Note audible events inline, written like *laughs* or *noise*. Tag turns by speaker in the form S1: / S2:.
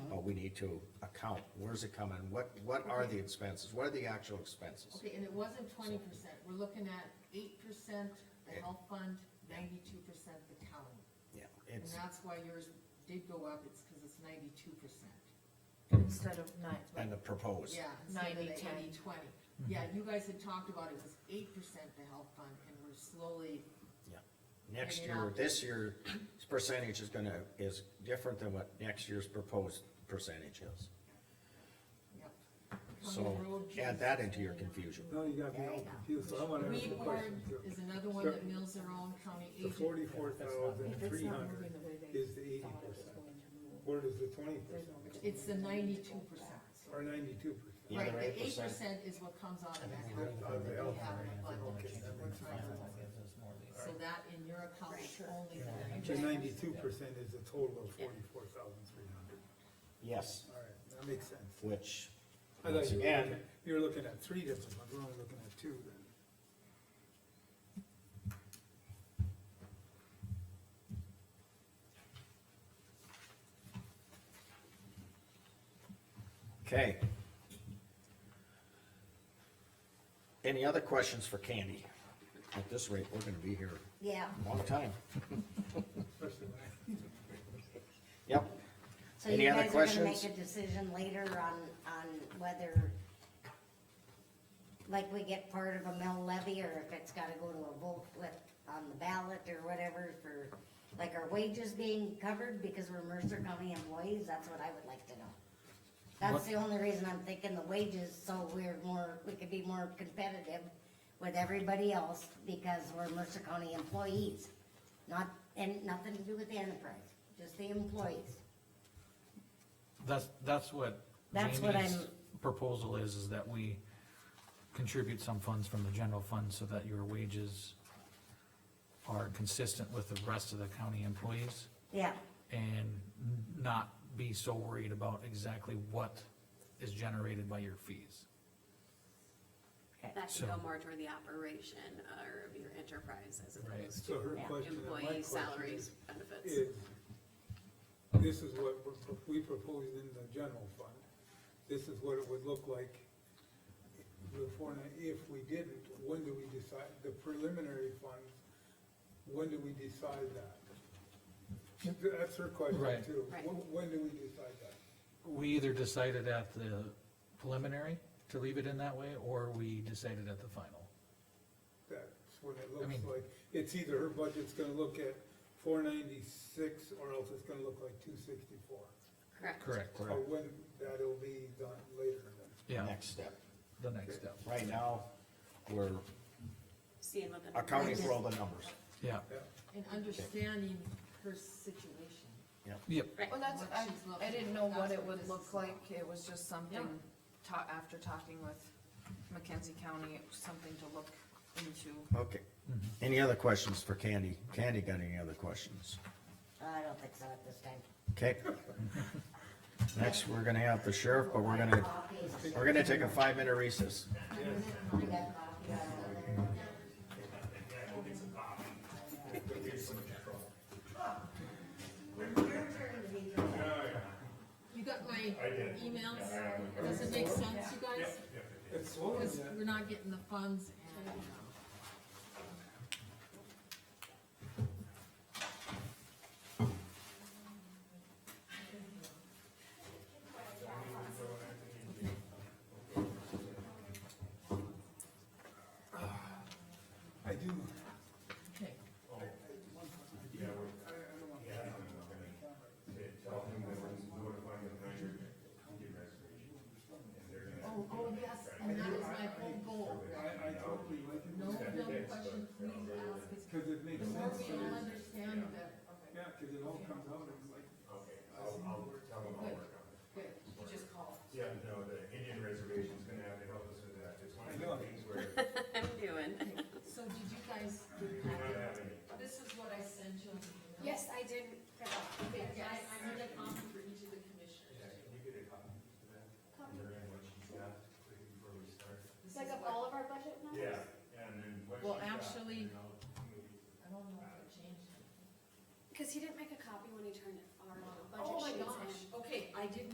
S1: what we need to account, where's it coming, what, what are the expenses, what are the actual expenses?
S2: Okay, and it wasn't twenty percent, we're looking at eight percent the health fund, ninety-two percent the county.
S1: Yeah,
S2: And
S1: it's,
S2: that's why yours did go up, it's because it's ninety-two percent.
S3: instead of nine, like,
S1: and the proposed.
S2: Yeah, instead of
S3: 90,
S2: the
S3: 10.
S2: eighty, twenty. Yeah, you guys had talked about it was eight percent the health fund, and we're slowly,
S1: Next
S2: Yeah.
S1: year, this year's percentage is gonna, is different than what next year's proposed percentage is.
S2: yep.
S1: So add that into your confusion.
S4: No, you got me all confused, so I wanna ask
S2: Weed
S4: a
S2: board
S4: question too.
S2: is another one that mills their own county
S4: The
S2: agent.
S4: forty-four thousand
S3: if it's
S4: three
S3: not moving
S4: hundred
S3: the way they
S4: is the eighty
S3: thought it was going
S4: percent,
S3: to move,
S4: where does the twenty
S3: there's
S4: percent,
S3: no reason.
S2: It's the ninety-two percent.
S4: or ninety-two percent?
S1: Yeah,
S2: Right,
S1: they're
S2: the eight
S1: 8%.
S2: percent is what comes out of that health
S4: Out
S2: fund
S4: of the
S2: that we
S4: health
S2: have in the
S4: fund,
S2: budget.
S4: okay, that
S2: We're
S4: makes
S2: trying to-
S4: sense.
S2: So that in your account is only the
S4: The
S2: ninety-two.
S4: ninety-two percent is a total of forty-four thousand three hundred,
S1: Yes,
S4: all right, that makes sense.
S1: which,
S4: I thought
S1: once
S4: you were
S1: again,
S4: looking- You were looking at three different ones, we're only looking at two then.
S1: okay. Any other questions for Candy? At this rate, we're gonna be here
S5: Yeah,
S1: a long time.
S4: Especially when I-
S1: Yep,
S5: so
S1: Any
S5: you
S1: other
S5: guys are gonna make a
S1: questions?
S5: decision later on, on whether, like, we get part of a mill levy, or if it's gotta go to a vote with, on the ballot or whatever for, like, our wages being covered, because we're Mercer County employees, that's what I would like to know. That's the only reason I'm thinking the wages, so we're more, we could be more competitive with everybody else, because we're Mercer County employees. Not, and nothing to do with the enterprise, just the employees.
S6: That's, that's what
S5: That's what
S6: Jamie's
S5: I'm-
S6: proposal is, is that we contribute some funds from the general fund so that your wages are consistent with the rest of the county employees
S5: Yeah,
S6: and not be so worried about exactly what is generated by your fees.
S7: That
S6: So-
S7: should go more toward the operation uh, of your enterprise as
S6: Right.
S7: opposed
S4: So her
S5: Yeah.
S7: to
S4: question and my
S7: employee
S4: question
S7: salaries,
S4: is-
S7: benefits.
S4: is, this is what we're pro- we proposed in the general fund. This is what it would look like before, and if we didn't, when do we decide, the preliminary fund, when do we decide that? That's her question
S6: Right.
S4: too.
S7: Right.
S4: When, when do we decide that?
S6: We either decided at the preliminary to leave it in that way, or we decided at the final.
S4: That's what it
S6: I
S4: looks
S6: mean-
S4: like. It's either her budget's gonna look at four ninety-six, or else it's gonna look like two sixty-four.
S7: Correct.
S6: Correct,
S4: So when, that'll be done later then.
S6: yeah,
S1: next step.
S6: the next step,
S1: Right now, we're
S7: Seeing what the.
S1: accounting for all the numbers.
S6: yeah,
S4: Yeah.
S2: And understanding her situation.
S6: yep.
S7: Right.
S3: Well, that's,
S2: What
S3: I,
S2: she's looking
S3: I didn't
S2: at.
S3: know what
S2: That's
S3: it
S2: what
S3: would
S2: this
S3: look
S2: is
S3: like,
S2: about.
S3: it was just something, ta- after talking with Mackenzie County, it was something to look into.
S1: Okay. Mm-hmm. Any other questions for Candy? Candy got any other questions?
S5: I don't think so at this time.
S1: Okay. Next, we're gonna have the sheriff, but we're gonna, we're gonna take a five-minute recess.
S2: You got my emails? Does it make sense, you guys?
S4: It's slow,
S2: Because
S4: yeah.
S2: we're not getting the funds and, um,
S4: I do.
S2: okay.
S4: Oh.
S2: Oh, oh, yes, and that is my whole goal.
S4: I, I totally like it,
S2: No, no question, please ask us.
S4: cause it makes
S2: The more
S4: sense,
S2: we all understand, the better.
S4: yeah, cause it all comes out, it's like,
S2: Good, good. You just call.
S8: Yeah, no, the Indian reservation's gonna have to help us with that, it's one of the things where
S7: *laughs* I'm doing.
S2: So did you guys,
S8: we don't have any.
S2: this is what I sent you.
S9: Yes, I did. print off.
S2: Okay, I, I made a comment for each of the commissioners. This
S9: It's
S2: is
S9: like of
S2: what-
S9: all of our budget numbers?
S8: Yeah, and then what
S2: Well,
S8: she's got,
S2: actually-
S8: you know,
S2: I don't know if I changed it.
S9: Because he didn't make a copy when he turned our budget
S2: Oh my
S9: sheets in.
S2: gosh, okay, I did